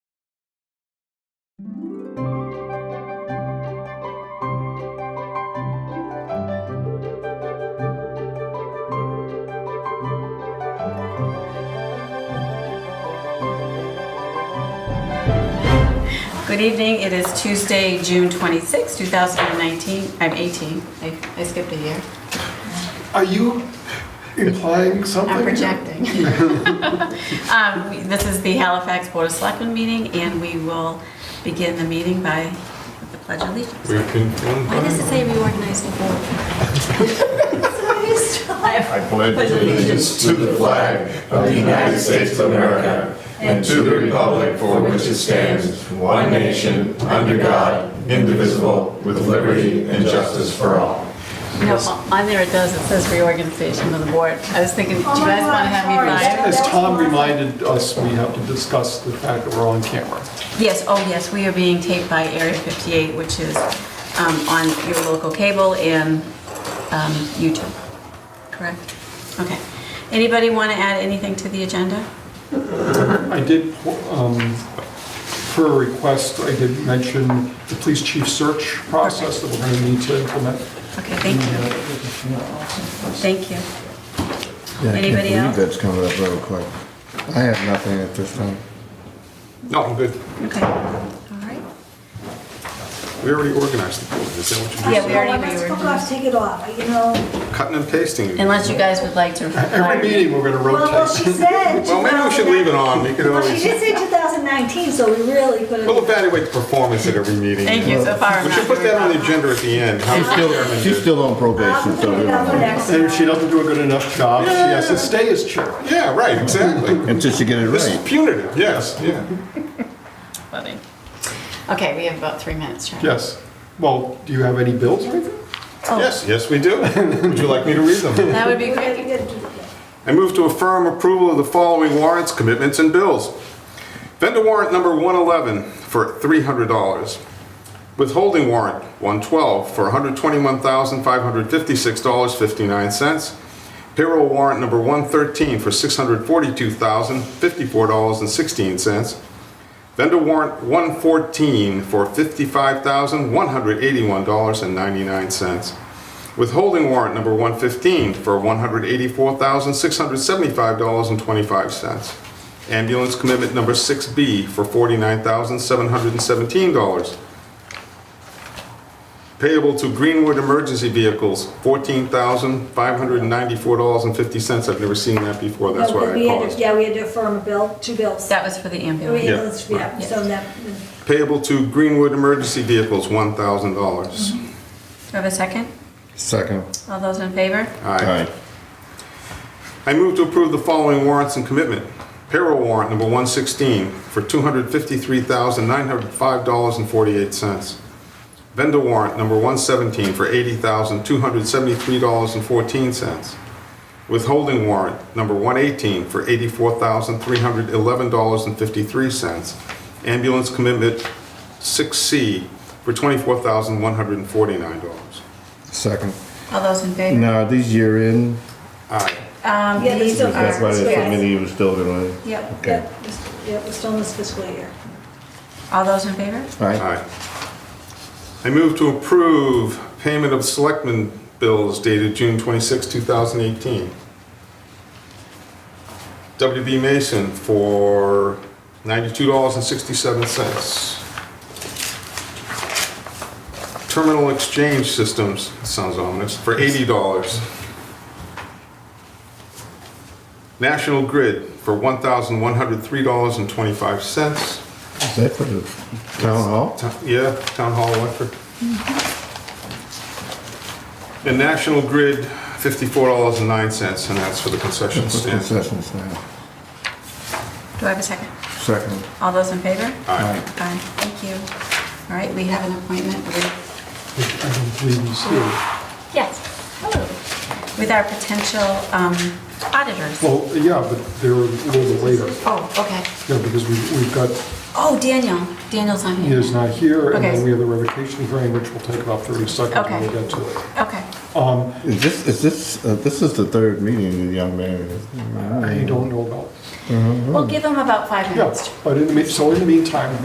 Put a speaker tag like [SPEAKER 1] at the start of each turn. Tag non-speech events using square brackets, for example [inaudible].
[SPEAKER 1] Good evening, it is Tuesday, June 26, 2019, I'm 18, I I skipped a year.
[SPEAKER 2] Are you implying something?
[SPEAKER 1] I'm projecting. Oh, [laughs] Um, we- This is the Halifax Board of Selectmen meeting, and we will begin the meeting by the Pledge of Allegiance.
[SPEAKER 3] We can.
[SPEAKER 1] Why does it say reorganize the board? [laughs]
[SPEAKER 3] I pledge allegiance to the flag of the United States of America and to the republic for which it stands, one nation, under God, indivisible, with liberty and justice for all.
[SPEAKER 1] No, on there it does, it says reorganization of the board. I was thinking, do you guys want to have me buy?
[SPEAKER 2] As Tom reminded us, we have to discuss the fact that we're on camera.
[SPEAKER 1] Yes, oh yes, we are being taped by Area 58, which is um, on your local cable and um, YouTube, correct? Okay. Anybody want to add anything to the agenda?
[SPEAKER 2] I did, um, per request, I did mention the police chief search process that we're going to need to implement.
[SPEAKER 1] Okay, thank you, thank you.
[SPEAKER 4] Yeah, I
[SPEAKER 1] Anybody
[SPEAKER 4] can't
[SPEAKER 1] else?
[SPEAKER 4] believe that's coming up real quick. I have nothing at this time.
[SPEAKER 5] No, I'm good.
[SPEAKER 1] Okay, all right.
[SPEAKER 5] We already organized the board. Is that what you
[SPEAKER 1] Yeah, we
[SPEAKER 5] just
[SPEAKER 1] already
[SPEAKER 6] Well, let's
[SPEAKER 1] reorganized.
[SPEAKER 6] fuck off, take it off, you know.
[SPEAKER 5] said? Cutting and pasting.
[SPEAKER 1] Unless you guys would like to.
[SPEAKER 2] Every meeting, we're going to
[SPEAKER 6] Well, well, she
[SPEAKER 2] rotate.
[SPEAKER 6] said.
[SPEAKER 5] [laughs] Well, maybe we should leave it on. We could
[SPEAKER 6] Well, she
[SPEAKER 5] always,
[SPEAKER 6] did say 2019, so we really could
[SPEAKER 5] we'll
[SPEAKER 6] have.
[SPEAKER 5] evaluate the performance at every meeting.
[SPEAKER 1] Thank you, so far. I'm
[SPEAKER 5] We should
[SPEAKER 1] not
[SPEAKER 5] put that on
[SPEAKER 1] very-
[SPEAKER 5] the agenda at the end.
[SPEAKER 4] She's still, she's still on probation, so we don't know.
[SPEAKER 2] And if she doesn't do a good enough job, she has to stay as chair.
[SPEAKER 5] Yeah, right, exactly.
[SPEAKER 4] Until she get it
[SPEAKER 5] This is
[SPEAKER 4] right.
[SPEAKER 5] punitive, yes, yeah.
[SPEAKER 1] Funny. Okay, we have about three minutes, Sharon.
[SPEAKER 2] Yes. Well, do you have any bills or anything?
[SPEAKER 5] Yes, yes, we do. Would you like me to read them?
[SPEAKER 1] That would be great.
[SPEAKER 6] Well,
[SPEAKER 5] I move to affirm approval of the following warrants, commitments, and bills. Vendor warrant number 111 for $300. Withholding warrant 112 for $121,556.59. Payroll warrant number 113 for $642,054.16. Vendor warrant 114 for $55,181.99. Withholding warrant number 115 for $184,675.25. Ambulance commitment number 6B for $49,717. Payable to Greenwood Emergency Vehicles, $14,594.50. I've never seen that before, that's why I
[SPEAKER 6] we had to-
[SPEAKER 5] paused.
[SPEAKER 6] Yeah, we had to affirm a bill, two bills.
[SPEAKER 1] That was for the
[SPEAKER 6] We
[SPEAKER 1] ambulance.
[SPEAKER 6] had those- Yeah, so that,
[SPEAKER 5] Payable to Greenwood Emergency Vehicles, $1,000.
[SPEAKER 1] Do I have a second?
[SPEAKER 4] Second.
[SPEAKER 1] All those in favor?
[SPEAKER 5] Aye. I move to approve the following warrants and commitment. Payroll warrant number 116 for $253,905.48. Vendor warrant number 117 for $80,273.14. Withholding warrant number 118 for $84,311.53. Ambulance commitment 6C for $24,149.
[SPEAKER 4] Second.
[SPEAKER 1] All those in favor?
[SPEAKER 4] Now, are these year in,
[SPEAKER 5] Aye.
[SPEAKER 1] Um,
[SPEAKER 6] Yeah, they
[SPEAKER 1] these
[SPEAKER 6] still-
[SPEAKER 4] that's why
[SPEAKER 1] are,
[SPEAKER 6] Alright.
[SPEAKER 4] there's so many of us still doing it.
[SPEAKER 1] yep.
[SPEAKER 4] Okay.
[SPEAKER 6] yeah, it was still in this fiscal year.
[SPEAKER 1] All those in favor?
[SPEAKER 4] Aye.
[SPEAKER 5] Aye. I move to approve payment of selectmen bills dated June 26, 2018. WB Mason for $92.67. Terminal Exchange Systems, sounds ominous, for $80. National Grid for $1,103.25.
[SPEAKER 4] Is that for the town hall?
[SPEAKER 5] Town- Yeah, Town Hall Electric. And National Grid, fifty-four dollars and nine cents, and that's for the concession
[SPEAKER 4] [laughs] That's the
[SPEAKER 5] stand.
[SPEAKER 4] concession stand.
[SPEAKER 1] Do I have a second?
[SPEAKER 4] Second.
[SPEAKER 1] All those in favor?
[SPEAKER 5] Aye.
[SPEAKER 4] Aye.
[SPEAKER 1] Aye, thank you. All right, we have an appointment with,
[SPEAKER 2] I don't believe he's here.
[SPEAKER 1] yes, hello, with our potential um, auditors.
[SPEAKER 2] Well, yeah, but they're a little later.
[SPEAKER 1] Oh, okay.
[SPEAKER 2] Yeah, because we- we've got,
[SPEAKER 1] Oh, Daniel, Daniel's on here.
[SPEAKER 2] he is not here, and
[SPEAKER 1] Okay.
[SPEAKER 2] then we have the revocation hearing, which will take about 30 seconds when we
[SPEAKER 1] Okay.
[SPEAKER 2] get to it.
[SPEAKER 1] Okay,
[SPEAKER 4] Is this, is this, uh, this is the third meeting of the young man.
[SPEAKER 2] I don't know about,
[SPEAKER 1] we'll give him about five
[SPEAKER 2] yeah,
[SPEAKER 1] minutes.
[SPEAKER 2] but in the, mean- so in the meantime,